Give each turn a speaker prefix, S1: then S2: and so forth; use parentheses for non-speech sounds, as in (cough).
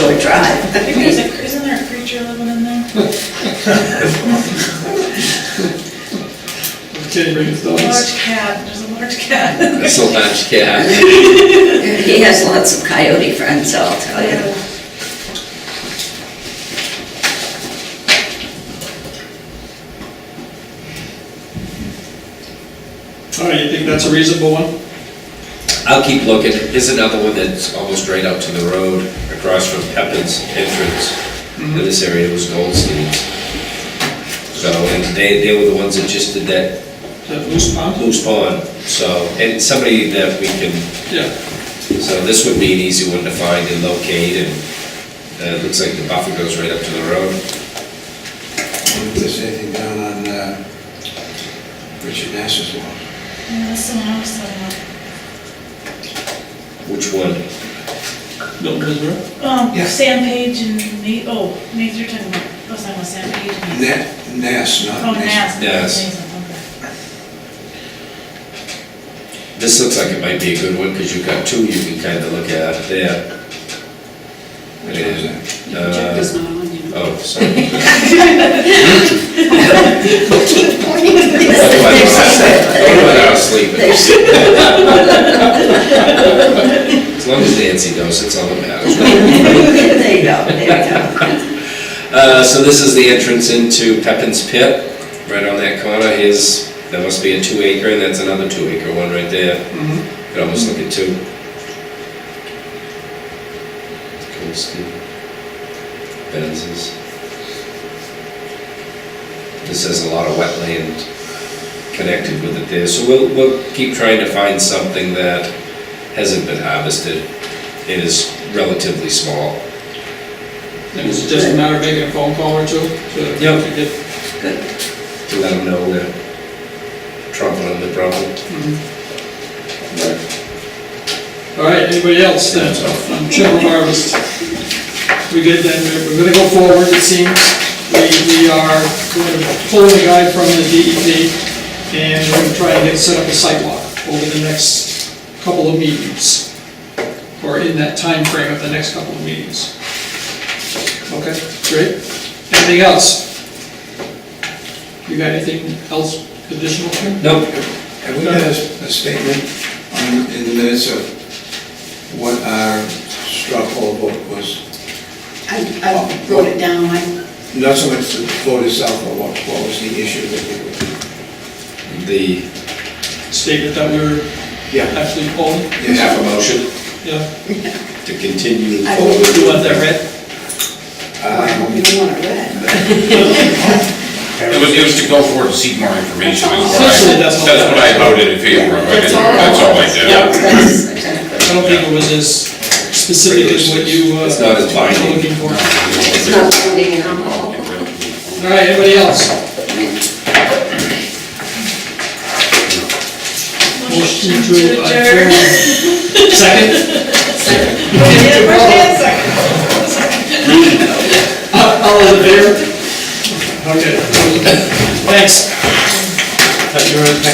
S1: (laughs)
S2: brings those.
S3: Large cat, there's a large
S2: (laughs)
S3: cat.
S2: That's a large cat.
S1: He has lots of coyote friends, I'll tell (laughs) you.
S3: Yeah.
S4: All right, you think that's a reasonable one?
S2: I'll keep looking. Here's another one that's almost right out to the road, across from Pepin's entrance. In this area it was Goldstein's. So, and they, they were the ones that just did that
S4: That loose pond?
S2: loose pond, so, and it's somebody that we can,
S4: Yeah,
S2: so this would be an easy one to find and locate, and uh, it looks like the buffer goes right up to the road.
S5: If there's anything down on uh, Richard Nash's lawn.
S3: Yeah, that's the one I was talking about.
S2: Which one?
S4: Milton Israel?
S3: Um,
S5: Yeah.
S3: Sam Page and Nate, oh, Nate, you're talking about, I was talking about Sam Page and Nate.
S5: Na- Nash, not
S3: Oh, Nas.
S5: Nash.
S2: Nas.
S3: Okay.
S2: This looks like it might be a good one, because you've got two you can kind of look at there.
S5: Which one's that?
S2: Uh, Oh, sorry. (laughs) Otherwise, I'll sleep. As long as Nancy knows, it's all that matters.
S1: There you go, there you go.
S2: Uh, so this is the entrance into Pepin's Pit, right on that corner, here's, that must be a two acre, and that's another two acre one right there. Could almost look at two. Kolsky, Benzes. This has a lot of wetland connected with it there, so we'll, we'll keep trying to find something that hasn't been harvested and is relatively small.
S4: And it's just a matter of making a phone call or two to
S2: Yeah.
S4: to get,
S2: to let them know that Trump on the problem.
S4: all right, anybody else then? On General harvest. We good then, We're- we're gonna go forward, it seems. We, we are going to pull the guy from the DEP and we're gonna try and get, set up a site walk over the next couple of meetings. Or in that time frame of the next couple of meetings. Okay, great. Anything else? You got anything else additional here?
S2: Nope.
S5: Have we got a a statement on, in the minutes of what our straw poll vote was?
S6: I, I wrote it down, I,
S5: Not so much the vote itself, but what what was the issue that we were...
S2: The,
S4: statement that we were
S5: Yeah.
S4: actually polling,
S2: you have a motion
S4: yeah.
S2: to continue
S6: I-
S2: forward.
S4: Do you want that read?
S6: I don't even want it read.
S7: It was, it was to go forward and seek more information. is what I-
S4: Essentially, that's all.
S7: That's what I voted in favor of, I didn't- that's all I did.
S1: That's exactly.
S4: I don't think it was as specific as what you uh,
S2: It's not as binding.
S4: were looking for. All
S1: It's not voting at all.
S4: right, anybody else? Motion to adjourn. Second?
S3: Yeah, where's Nancy?
S4: Uh, (laughs) All those in favor? Okay. Thanks.